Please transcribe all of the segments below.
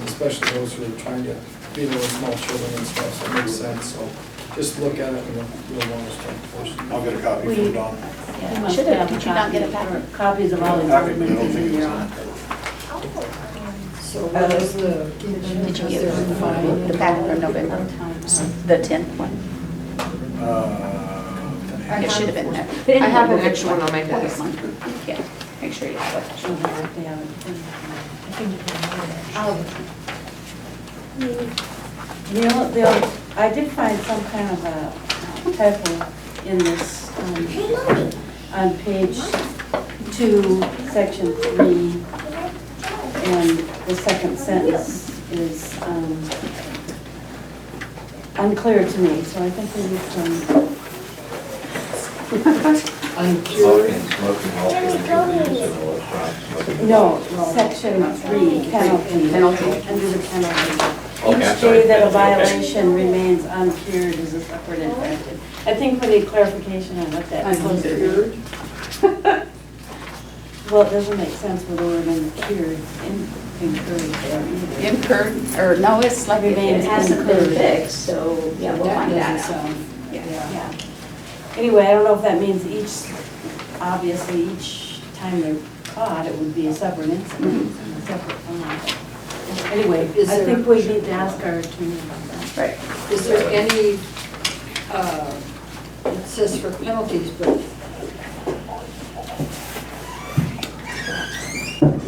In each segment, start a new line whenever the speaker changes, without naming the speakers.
especially those who are trying to be there with small children and stuff, so it makes sense, so just look at it in a real long perspective.
I'll get a copy
We-
from Don.
You
Yeah,
must
should have,
have a
did you not get a
copy,
packet?
or Copies of all
Copy,
the
but I
government
don't think
in
it was
your
on.
office.
So what is Oh, the?
Did you get the packet from November, the 10th one?
Uh,
It should have been there.
But anyway,
I have an
we'll
extra one on my
We'll get
desk.
one. Yeah, make sure you have
Children, if they have it. They'll, they'll, I did find some kind of a typo in this, um, on page two, section three, and the second sentence is um, unclear to me, so I think we need some um,
Smoking, smoking, all kinds of...
No, section three, penalty.
Penalty.
Under the penalty.
Okay, I'm
Each
sorry.
day that a
Okay.
violation remains uncured is a separate infraction. I think we need clarification on what that. supposed to
Uncured?
be. Well, it doesn't make sense with the word uncured, in- incurred there
it.
either.
Incurred, or no, it's like it
Remains
hasn't been
incurred.
fixed, so yeah, we'll
That
find that
doesn't
out.
sound-
Yeah.
Yeah. Anyway, I don't know if that means each, obviously, each time they're caught, it would be a separate incident, a separate fine. Anyway,
Is
I
there-
think we need to ask our attorney about that.
Right.
Is there any, uh, it says for penalties, but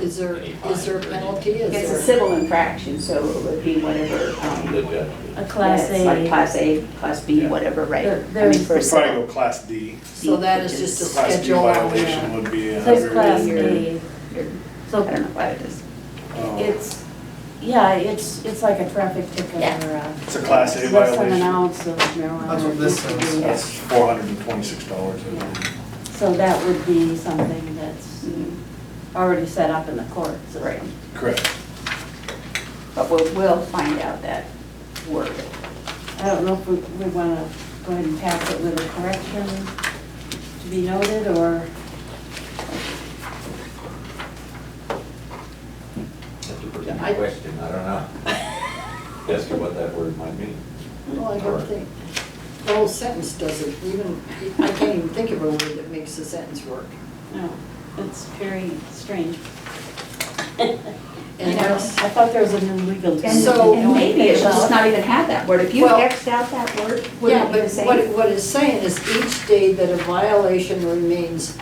is there, is there a penalty? Is
It's a
there-
civil infraction, so it would be whatever, um,
A class
yeah, it's like
A,
Class A, Class B, whatever, right?
There-
I mean,
there's-
for a
We'll probably
civil.
go class D.
So that is just a
Class D
schedule. on
violation
there.
would be. a
That's
hundred
class
and-
A.
You're- I
So
don't know what it is.
Oh.
it's, yeah, it's, it's like a traffic ticket
Yeah.
or a.
It's a class A
Less than an
violation.
ounce of marijuana.
That's what this says.
Yeah.
That's four hundred and twenty-six dollars.
So that would be something that's
Mm,
already set up in the court system.
Right.
Correct.
But we'll, we'll find out that word.
I don't know if we, we want to go ahead and pass it with a correction to be noted, or
That's a pretty good question, I don't know. As to what that word might mean.
Well, I don't think, the whole sentence doesn't even, I can't even think of a word that makes the sentence work.
no, it's very strange.
And
You know, I
that's-
thought there was a new legal term.
And
So-
and maybe it's just not even have that word. If you
Well-
Xed out that word,
Yeah,
wouldn't
but
even say.
what, it- what it's saying is each day that a violation remains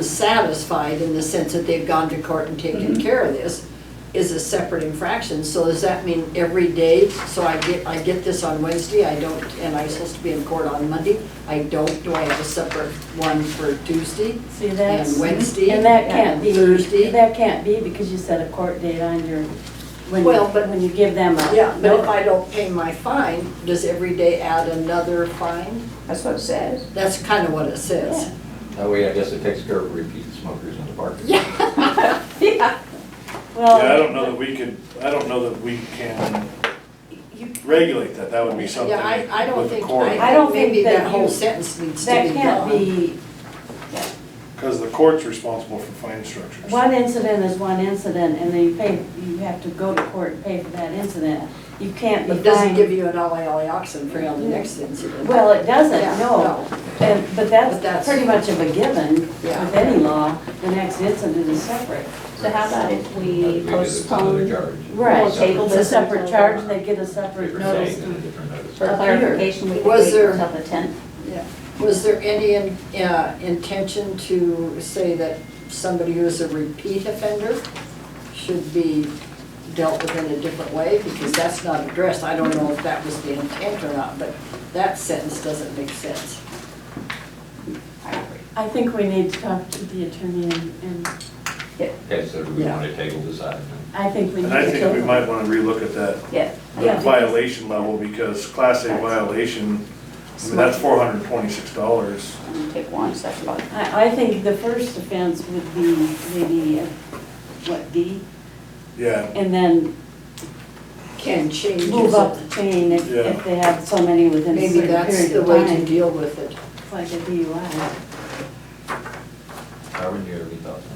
unsatisfied in the sense that they've gone to court and
Mm-hmm.
taken care of this is a separate infraction. So does that mean every day, so I get, I get this on Wednesday, I don't, and I'm supposed to be in court on Monday? I don't, do I have a separate one for Tuesday?
See, that's.
And Wednesday
And that can't
and
be.
Thursday.
That can't be because you set a court date on your, when, you-
Well, but-
when you give them a.
Yeah, but if I don't pay my fine, does every day add another fine?
That's what it says.
That's kind of what it says.
That way, I guess it takes care of repeat smokers in the park.
Yeah.
Yeah,
Well,
I don't know that we could, I don't know that we can regulate that. That would be something
Yeah, I, I don't
with the
think,
court.
I
don't think
think maybe
that
that whole
you-
sentence needs to
That
be
can't
gone.
be,
Because the court's responsible for fine structures.
one incident is one incident, and then you pay, you have to go to court and pay for that incident. You can't be
It doesn't give
fined.
you an ollie ollie oxen for on the next incident.
Well, it doesn't,
Yeah,
no. And, but
But that's-
that's pretty much of a given with
Yeah.
any law, the next incident is separate.
So how about if we
Because it's another
postpone
charge.
Right,
We'll table
it's a
this
separate
until-
charge, they get a separate
Different
notice.
date and a different notice.
for clarification, we could
Was
wait
there-
until the 10th?
Yeah. Was there any in- uh, intention to say that somebody who's a repeat offender should be dealt with in a different way? Because that's not addressed. I don't know if that was the intent or not, but that sentence doesn't make sense.
I agree.
I think we need to talk to the attorney, and, and
Okay, so do we want to table this item?
I think we need
And
to.
I think we
go-
might want to relook at that
Yeah.
the violation level, because class A violation, I mean, that's four hundred and twenty-six dollars.
I'm gonna Take one second. off.
I, I think the first offense would be maybe, uh, what, D?
Yeah,
And then
Can change. is
move up
it?
the chain if,
Yeah.
if they have so many within a
Maybe
certain
that's
period
the
of
way to
time.
deal with it.
It's like a DUI.
Darwin, do you have any thoughts on